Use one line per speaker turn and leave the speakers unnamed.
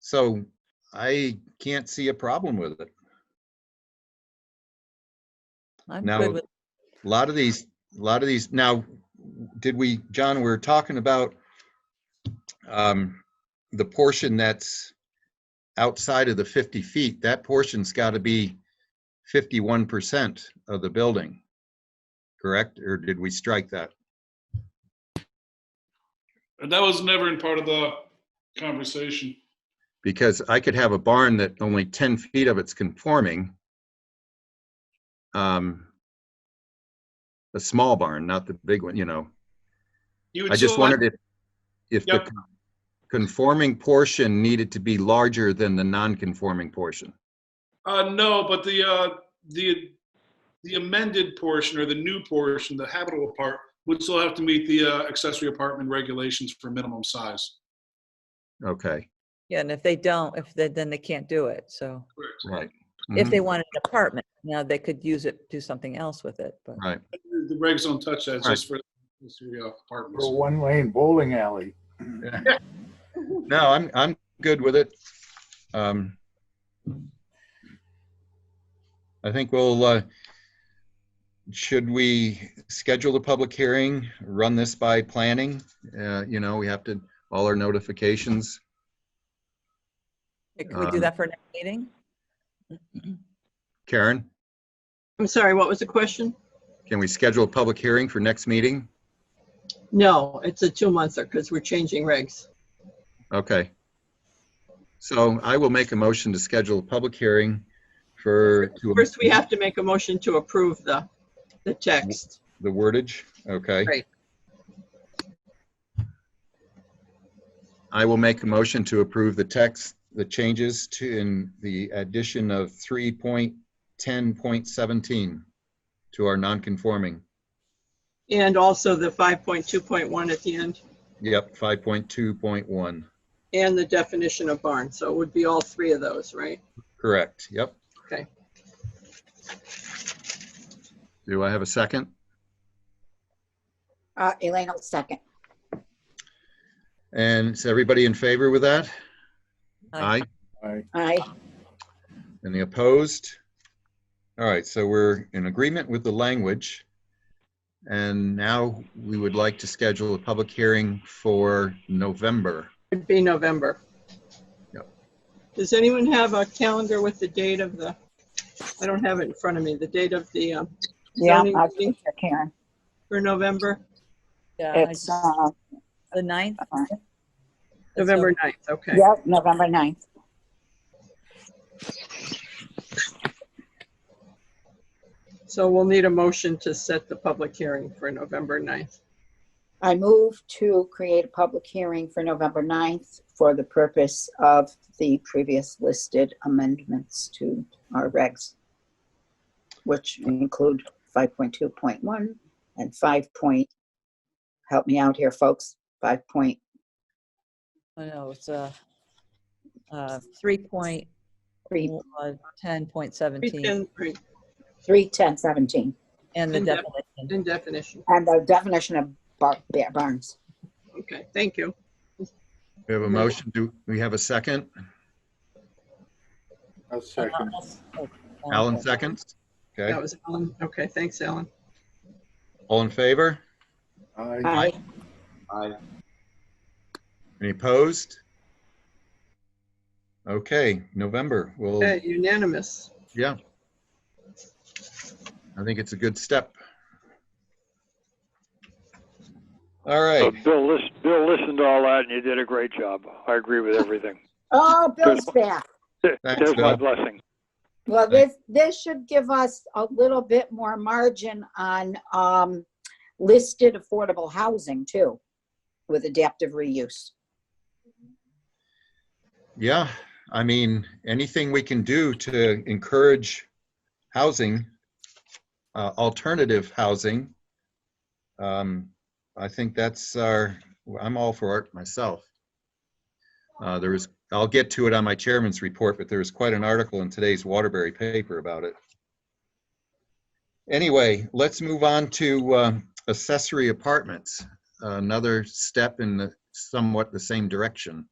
So I can't see a problem with it.
I'm
Now-
good with,
A lot of these, a lot of these, now, did we, John, we we're talking about um, the portion that's outside of the 50 feet, that portion's got to be 51% of the building, correct? Or did we strike that?
And that was never in part of the conversation.
Because I could have a barn that only 10 feet of it's conforming. Um, A small barn, not the big one, you know.
You would
I just
still have-
wondered if, if the
Yep.
con- conforming portion needed to be larger than the non-conforming portion.
Uh, no, but the, uh, the, the amended portion or the new portion, the habitable part, would still have to meet the uh, accessory apartment regulations for minimum size.
Okay,
yeah, and if they don't, if they, then they can't do it, so.
right.
If
Mhm.
they wanted an apartment, now they could use it, do something else with it, but.
Mm-hmm, Right,
The regs don't touch that, it's just for just for, uh,
Or
apartments.
one lane bowling alley.
no, I'm, I'm good with it. Um, I think we'll, uh, should we schedule the public hearing, run this by planning? Uh, You know, we have to, all our notifications.
Hey, Could we do
Um,
that for next meeting?
Karen,
I'm sorry, what was the question?
can we schedule a public hearing for next meeting?
No, it's a two-monther because we're changing regs.
Okay. So I will make a motion to schedule a public hearing for, to
First, we have to make a motion to approve the, the text.
the wordage, okay?
Right.
I will make a motion to approve the text, the changes to, in the addition of 3.10.17 to our non-conforming.
And also the 5.2.1 at the end
Yep, 5.2.1,
and the definition of barn. So it would be all three of those, right?
correct, yep.
Okay.
Do I have a second?
Uh, Elaine will second.
And is everybody in favor with that? Aye.
I,
Aye.
Any opposed? All right, so we're in agreement with the language. And now we would like to schedule a public hearing for November.
It'd be November.
Yep.
Does anyone have a calendar with the date of the, I don't have it in front of me, the date of the, um,
Yeah,
Zoning
I'll
meeting?
take care, Karen.
for November?
Yeah, I
It's,
just-
uh,
The ninth?
fine.
That's
November 9th, okay.
yep, November 9th.
So we'll need a motion to set the public hearing for November 9th.
I move to create a public hearing for November 9th for the purpose of the previous listed amendments to our regs, which include 5.2.1 and 5 point, help me out here, folks, 5 point,
I know, it's uh uh, three point,
three
uh, ten point seventeen,
Pretend- pre-
three ten seventeen,
and the
and def-
definition.
In definition,
and the definition of bar- ba- barns.
okay, thank you.
We have a motion, do we have a second?
I'll second.
Alan seconds?
That
Okay,
was Alan, okay, thanks, Alan.
all in favor?
I,
Aye.
Any opposed? Okay, November, well,
Okay, Unanimous,
yeah. I think it's a good step. All
So
right,
Bill, listen, Bill listened to all that and you did a great job. I agree with everything.
Oh, Bill's back.
Thanks,
There's my
Bill.
blessing.
Well, this, this should give us a little bit more margin on um, listed affordable housing too, with adaptive reuse.
Yeah, I mean, anything we can do to encourage housing, uh, alternative housing. Um, I think that's our, I'm all for it myself. Uh, there is, I'll get to it on my chairman's report, but there is quite an article in today's Waterbury paper about it. Anyway, let's move on to, um, accessory apartments, another step in the somewhat the same direction.